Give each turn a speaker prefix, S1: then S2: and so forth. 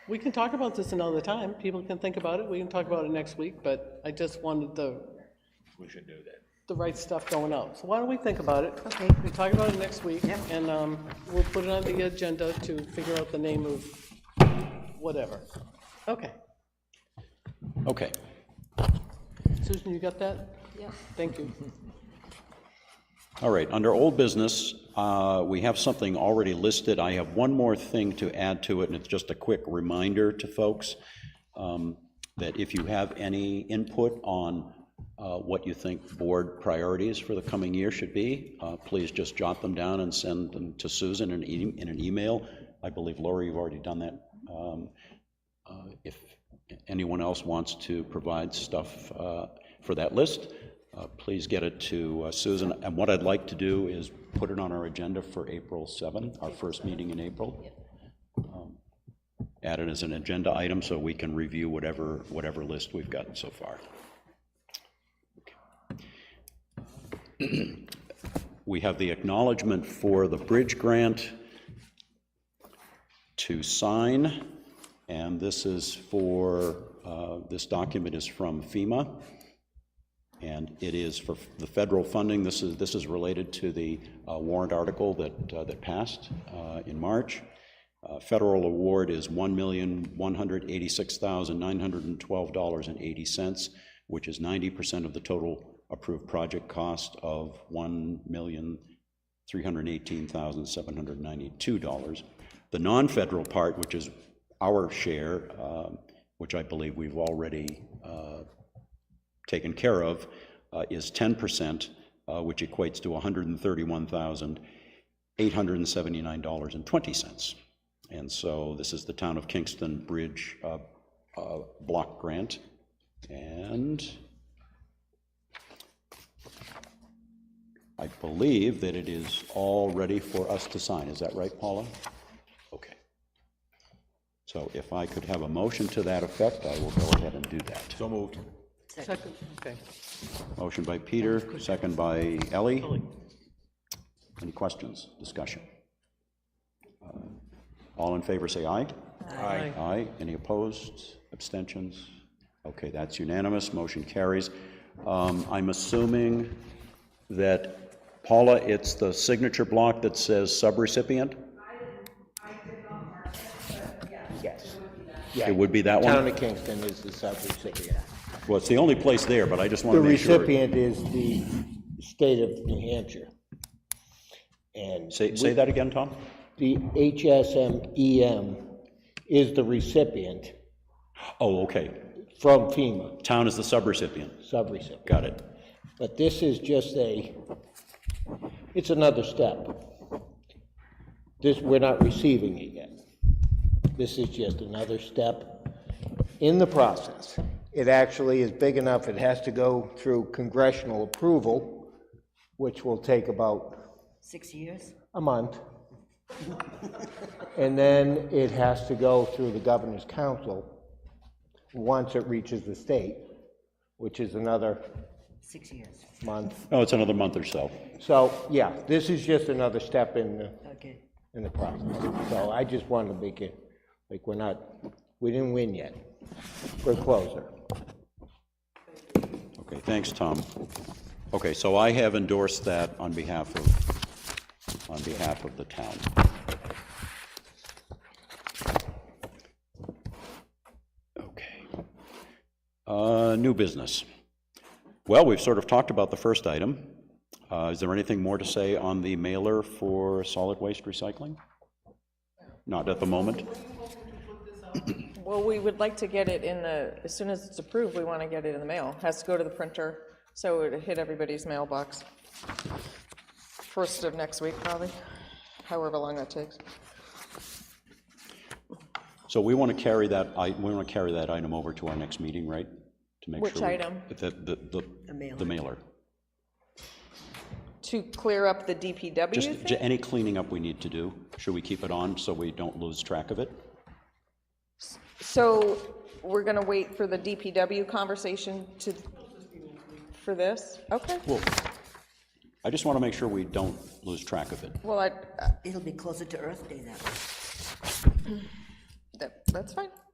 S1: We can talk about this another time. People can think about it. We can talk about it next week, but I just wanted the,
S2: We should do that.
S1: the right stuff going out. So why don't we think about it?
S3: Okay.
S1: We talk about it next week,
S3: Yep.
S1: and um, we'll put it on the agenda to figure out the name of whatever. Okay.
S2: Okay.
S1: Susan, you got that?
S3: Yep.
S1: Thank you.
S2: All right, under old business, uh, we have something already listed. I have one more thing to add to it, and it's just a quick reminder to folks um, that if you have any input on uh, what you think board priorities for the coming year should be, uh, please just jot them down and send them to Susan in an e- in an email. I believe, Lori, you've already done that. Um, uh, If anyone else wants to provide stuff uh, for that list, uh, please get it to uh, Susan. And what I'd like to do is put it on our agenda for April 7, our first meeting in April. Um, Add it as an agenda item so we can review whatever, whatever list we've gotten so far. We have the acknowledgement for the bridge grant to sign, and this is for, uh, this document is from FEMA, and it is for the federal funding. This is, this is related to the uh, warrant article that, uh, that passed uh, in March. Uh, Federal award is $1,186,912.80, which is 90% of the total approved project cost of $1,000,000. $318,792. The non-federal part, which is our share, um, which I believe we've already uh, taken care of, uh, is 10%, uh, which equates to $131,879.20. And so this is the Town of Kingston Bridge uh, uh, Block Grant. And I believe that it is all ready for us to sign. Is that right, Paula? Okay. So if I could have a motion to that effect, I will go ahead and do that. So moved.
S1: Second, okay.
S2: Motion by Peter, second by Ellie. Any questions, discussion? Uh, All in favor, say aye. Aye. Aye. Any opposed, abstentions? Okay, that's unanimous, motion carries. Um, I'm assuming that, Paula, it's the signature block that says subrecipient?
S4: Yes.
S2: It would be that
S4: Town
S2: one?
S4: of Kingston is the subrecipient.
S2: Well, it's the only place there, but I just want
S4: The
S2: to make sure.
S4: recipient is the state of New Hampshire. And
S2: Say, say that again, Tom?
S4: the HSMEM E is the recipient
S2: Oh, okay.
S4: from FEMA,
S2: Town is the subrecipient.
S4: subrecipient.
S2: Got it.
S4: But this is just a, it's another step. This, we're not receiving it yet. This is just another step in the process. It actually is big enough, it has to go through congressional approval, which will take about
S3: Six years?
S4: a month. And then it has to go through the governor's council once it reaches the state, which is another
S3: Six years.
S4: month.
S2: Oh, it's another month or so.
S4: So, yeah, this is just another step in, the
S3: Okay.
S4: in the process. So I just wanted to make it, like, we're not, we didn't win yet. We're closer.
S2: Okay, thanks, Tom. Okay, so I have endorsed that on behalf of, on behalf of the town. Okay. Uh, New business. Well, we've sort of talked about the first item. Uh, Is there anything more to say on the mailer for solid waste recycling? Not at the moment?
S5: Well, we would like to get it in the, as soon as it's approved, we want to get it in the mail. Has to go to the printer, so it hit everybody's mailbox. First of next week, probably, however long that takes.
S2: So we want to carry that, i- we want to carry that item over to our next meeting, right? To make
S5: Which
S2: sure we-
S5: item?
S2: The, the, the-
S3: mailer.
S2: the mailer.
S5: To clear up the DPW
S2: Just j-
S5: thing?
S2: any cleaning up we need to do, should we keep it on so we don't lose track of it?
S5: So we're going to wait for the DPW conversation to, for this? Okay.
S2: Well, I just want to make sure we don't lose track of it.
S5: Well, I, uh,
S3: It'll be closer to Earth Day then.
S5: that, that's fine.